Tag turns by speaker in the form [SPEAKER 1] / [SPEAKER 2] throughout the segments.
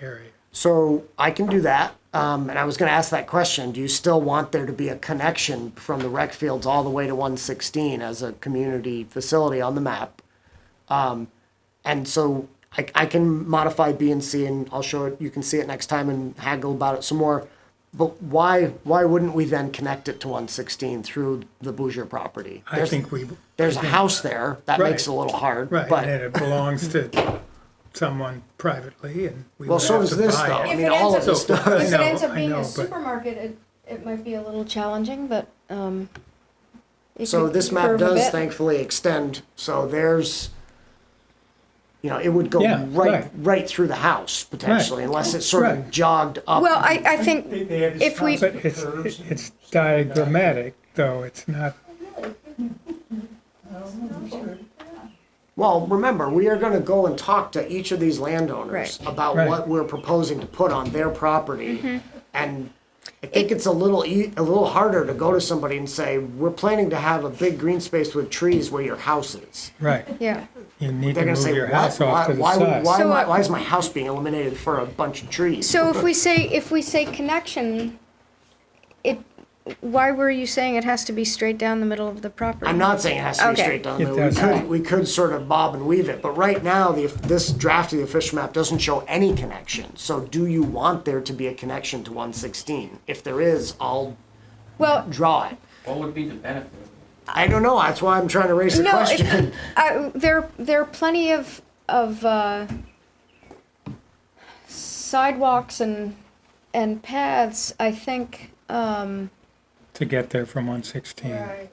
[SPEAKER 1] area.
[SPEAKER 2] So I can do that. Um, and I was going to ask that question. Do you still want there to be a connection from the rec fields all the way to 116 as a community facility on the map? Um, and so I, I can modify B and C, and I'll show it. You can see it next time and haggle about it some more. But why why wouldn't we then connect it to 116 through the Bouger property?
[SPEAKER 1] I
[SPEAKER 2] There's-
[SPEAKER 1] think we,
[SPEAKER 2] there's a house there that
[SPEAKER 1] Right.
[SPEAKER 2] makes it a little hard,
[SPEAKER 1] right,
[SPEAKER 2] but
[SPEAKER 1] and it belongs to someone privately and we
[SPEAKER 2] Well,
[SPEAKER 1] would
[SPEAKER 2] so
[SPEAKER 1] have
[SPEAKER 2] does
[SPEAKER 1] to
[SPEAKER 2] this,
[SPEAKER 1] buy
[SPEAKER 2] though. I
[SPEAKER 1] it.
[SPEAKER 2] mean,
[SPEAKER 3] If it
[SPEAKER 2] all
[SPEAKER 3] ends
[SPEAKER 2] of
[SPEAKER 3] up-
[SPEAKER 2] this
[SPEAKER 3] If
[SPEAKER 2] stuff-
[SPEAKER 1] I
[SPEAKER 3] it
[SPEAKER 1] know,
[SPEAKER 3] ends up
[SPEAKER 1] I
[SPEAKER 3] being
[SPEAKER 1] know,
[SPEAKER 3] a
[SPEAKER 1] but-
[SPEAKER 3] supermarket, it, it might be a little challenging, but, um. it
[SPEAKER 2] So
[SPEAKER 3] could
[SPEAKER 2] this map
[SPEAKER 3] curve a
[SPEAKER 2] does
[SPEAKER 3] bit.
[SPEAKER 2] thankfully extend, so there's, you know, it would go
[SPEAKER 1] Yeah,
[SPEAKER 2] right,
[SPEAKER 1] right.
[SPEAKER 2] right through the house potentially, unless it sort of
[SPEAKER 1] Right.
[SPEAKER 2] jogged up.
[SPEAKER 4] Well, I, I think
[SPEAKER 5] They- they have
[SPEAKER 4] if we,
[SPEAKER 5] this
[SPEAKER 1] But it's, it's diagrammatic, though, it's not,
[SPEAKER 2] Well, remember, we are gonna go and talk to each of these landowners
[SPEAKER 4] Right.
[SPEAKER 2] about
[SPEAKER 1] Right.
[SPEAKER 2] what we're proposing to put on their property. And I think it's a little, e- a little harder to go to somebody and say, we're planning to have a big green space with trees where your house is.
[SPEAKER 1] right.
[SPEAKER 4] yeah,
[SPEAKER 1] You need
[SPEAKER 2] They're
[SPEAKER 1] to
[SPEAKER 2] gonna
[SPEAKER 1] move
[SPEAKER 2] say,
[SPEAKER 1] your
[SPEAKER 2] why,
[SPEAKER 1] house off
[SPEAKER 2] why,
[SPEAKER 1] to the
[SPEAKER 2] why, would- why,
[SPEAKER 1] side.
[SPEAKER 4] So,
[SPEAKER 2] am I-
[SPEAKER 4] uh,
[SPEAKER 2] why is my house being eliminated for a bunch of trees?
[SPEAKER 4] so if we say, if we say connection, it, why were you saying it has to be straight down the middle of the property?
[SPEAKER 2] I'm not saying it has to be
[SPEAKER 4] Okay.
[SPEAKER 2] straight down the
[SPEAKER 1] It
[SPEAKER 2] middle. We
[SPEAKER 1] doesn't.
[SPEAKER 2] could, we could sort of bob and weave it, but right now, the, this draft of the official map doesn't show any connection. So do you want there to be a connection to one sixteen? If there is, I'll
[SPEAKER 4] Well,
[SPEAKER 2] draw it.
[SPEAKER 6] What would be the benefit?
[SPEAKER 2] I don't know, that's why I'm trying to raise the
[SPEAKER 4] no, it,
[SPEAKER 2] question.
[SPEAKER 4] I, there, there are plenty of, of, uh, sidewalks and, and paths, I think, um,
[SPEAKER 1] To get there from one sixteen.
[SPEAKER 5] I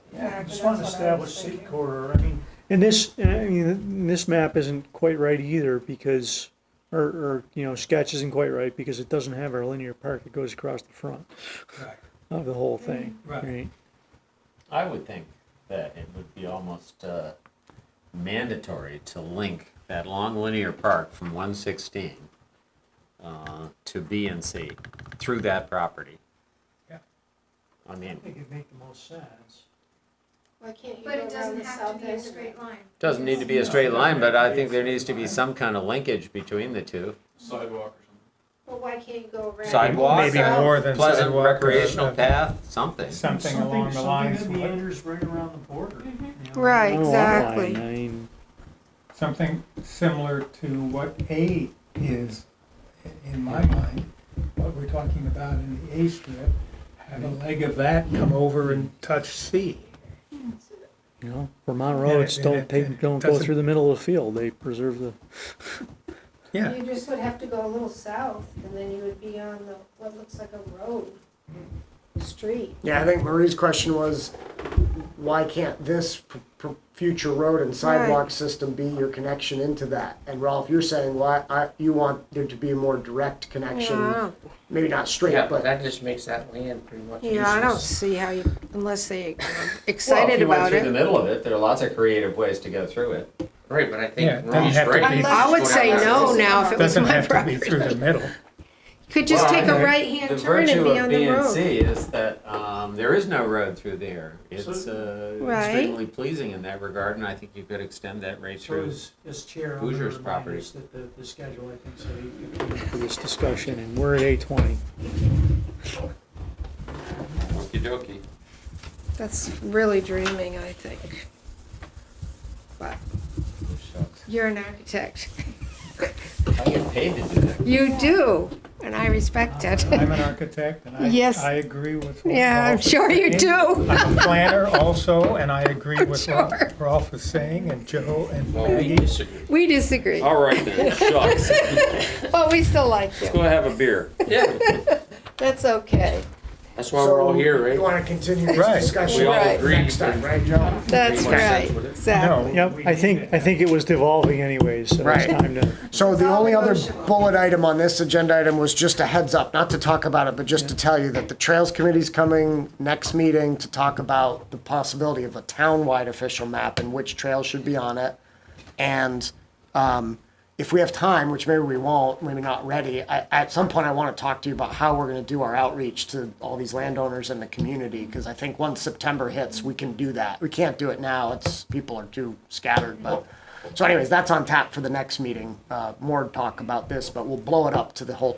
[SPEAKER 5] Just want to establish city corridor, I mean,
[SPEAKER 7] And this, and I mean, this map isn't quite right either because, or, or, you know, sketch isn't quite right because it doesn't have our linear park that goes across the front
[SPEAKER 1] Right.
[SPEAKER 7] of the whole thing,
[SPEAKER 1] Right.
[SPEAKER 7] right?
[SPEAKER 6] I would think that it would be almost uh, mandatory to link that long linear park from 116 uh, to B and C through that property.
[SPEAKER 1] Yeah.
[SPEAKER 6] I mean,
[SPEAKER 7] think it'd make the most sense.
[SPEAKER 3] Why can't you
[SPEAKER 8] But
[SPEAKER 3] go
[SPEAKER 8] it
[SPEAKER 3] around
[SPEAKER 8] doesn't
[SPEAKER 3] the
[SPEAKER 8] have
[SPEAKER 3] south
[SPEAKER 8] to be a
[SPEAKER 3] end?
[SPEAKER 8] straight line.
[SPEAKER 6] doesn't need to be a straight line, but I think there needs to be some kind of linkage between the two.
[SPEAKER 5] sidewalk
[SPEAKER 8] Well, why can't you go around?
[SPEAKER 6] Sidewalk,
[SPEAKER 1] Maybe more than
[SPEAKER 6] pleasant
[SPEAKER 1] sidewalk or
[SPEAKER 6] recreational
[SPEAKER 1] a-
[SPEAKER 6] path, something.
[SPEAKER 1] Something along the lines, of what-
[SPEAKER 7] right around the border.
[SPEAKER 1] Oh,
[SPEAKER 4] Right, exactly.
[SPEAKER 1] something similar to what A is, i- in my mind, what we're talking about in the A strip. Have a leg of that come over and touch C.
[SPEAKER 7] You know, Vermont
[SPEAKER 1] And it-
[SPEAKER 7] roads
[SPEAKER 1] and
[SPEAKER 7] don't
[SPEAKER 1] it- and
[SPEAKER 7] take,
[SPEAKER 1] it
[SPEAKER 7] don't go
[SPEAKER 1] doesn't-
[SPEAKER 7] through the middle of the field, they preserve the,
[SPEAKER 1] Yeah,
[SPEAKER 8] You just would have to go a little south and then you would be on the, what looks like a road, street.
[SPEAKER 2] Yeah, I think Marie's question was, why can't this p- p- future road and sidewalk system be your connection into that? And Ralph, you're saying, why, I, you want there to be a more direct connection, maybe not straight,
[SPEAKER 9] Yeah,
[SPEAKER 2] but.
[SPEAKER 9] but that just makes that land pretty much
[SPEAKER 8] Yeah, I don't
[SPEAKER 9] useless.
[SPEAKER 8] see how you, unless they
[SPEAKER 6] Well, if
[SPEAKER 8] excited
[SPEAKER 6] you went
[SPEAKER 8] about
[SPEAKER 6] through the
[SPEAKER 8] it.
[SPEAKER 6] middle of it, there are lots of creative ways to go through it.
[SPEAKER 9] Right, but I
[SPEAKER 1] Yeah, it
[SPEAKER 9] think
[SPEAKER 1] doesn't
[SPEAKER 9] Ron's
[SPEAKER 1] have to
[SPEAKER 9] right.
[SPEAKER 1] be-
[SPEAKER 9] Just
[SPEAKER 8] I would
[SPEAKER 9] go
[SPEAKER 8] say
[SPEAKER 9] down there.
[SPEAKER 8] no now if it was
[SPEAKER 1] doesn't
[SPEAKER 8] my
[SPEAKER 1] have to be
[SPEAKER 8] property.
[SPEAKER 1] through the middle.
[SPEAKER 8] Could just
[SPEAKER 1] Well,
[SPEAKER 8] take a
[SPEAKER 1] the-
[SPEAKER 6] The
[SPEAKER 8] right-hand turn
[SPEAKER 6] virtue
[SPEAKER 8] and be
[SPEAKER 6] of
[SPEAKER 8] on
[SPEAKER 6] B
[SPEAKER 8] the
[SPEAKER 6] and
[SPEAKER 8] road.
[SPEAKER 6] C is that um, there is no road through there. It's uh,
[SPEAKER 8] Right.
[SPEAKER 6] extremely pleasing in that regard, and I think you could extend that right
[SPEAKER 10] So
[SPEAKER 6] through.
[SPEAKER 10] as, as chair, I'm gonna
[SPEAKER 6] Hoosiers
[SPEAKER 10] remind
[SPEAKER 6] property.
[SPEAKER 10] us that the, the schedule, I think, said eight fifteen.
[SPEAKER 7] for this discussion, and we're at eight twenty.
[SPEAKER 6] Okey dokey.
[SPEAKER 8] That's really dreaming, I think. But you're an architect.
[SPEAKER 6] I get paid to do that.
[SPEAKER 8] You do, and I respect it.
[SPEAKER 1] I'm an architect, and
[SPEAKER 8] Yes.
[SPEAKER 1] I, I agree with what
[SPEAKER 8] Yeah, I'm
[SPEAKER 1] Ralph is
[SPEAKER 8] sure
[SPEAKER 1] saying.
[SPEAKER 8] you do.
[SPEAKER 1] I'm a planner also, and I agree
[SPEAKER 8] I'm
[SPEAKER 1] with what
[SPEAKER 8] sure.
[SPEAKER 1] Ralph is saying, and Joe and
[SPEAKER 9] Well, we
[SPEAKER 1] Maggie.
[SPEAKER 9] disagree.
[SPEAKER 8] We disagree,
[SPEAKER 11] All right then, shucks.
[SPEAKER 8] but we still like you.
[SPEAKER 11] Go have a beer.
[SPEAKER 9] Yeah,
[SPEAKER 8] That's okay.
[SPEAKER 9] that's why we're all here,
[SPEAKER 2] You
[SPEAKER 9] right?
[SPEAKER 2] want to continue this
[SPEAKER 1] Right.
[SPEAKER 2] discussion?
[SPEAKER 11] We all
[SPEAKER 8] Right.
[SPEAKER 11] agree.
[SPEAKER 2] Next time, right, Joe?
[SPEAKER 8] That's
[SPEAKER 9] Pretty much
[SPEAKER 8] right,
[SPEAKER 9] that's what it is.
[SPEAKER 8] exactly.
[SPEAKER 1] No,
[SPEAKER 7] Yep, I think, I think it was devolving anyways, so it's
[SPEAKER 2] Right.
[SPEAKER 7] time to.
[SPEAKER 2] So the
[SPEAKER 8] all
[SPEAKER 2] only other
[SPEAKER 8] negotiable.
[SPEAKER 2] bullet item on this agenda item was just a heads up, not to talk about it, but just to tell you that the Trails Committee's coming next meeting to talk about the possibility of a town-wide official map and which trails should be on it. And um, if we have time, which maybe we won't, maybe not ready, I, at some point I want to talk to you about how we're going to do our outreach to all these landowners in the community, because I think once September hits, we can do that. We can't do it now, it's, people are too scattered, but So anyways, that's on tap for the next meeting. Uh, more talk about this, but we'll blow it up to the whole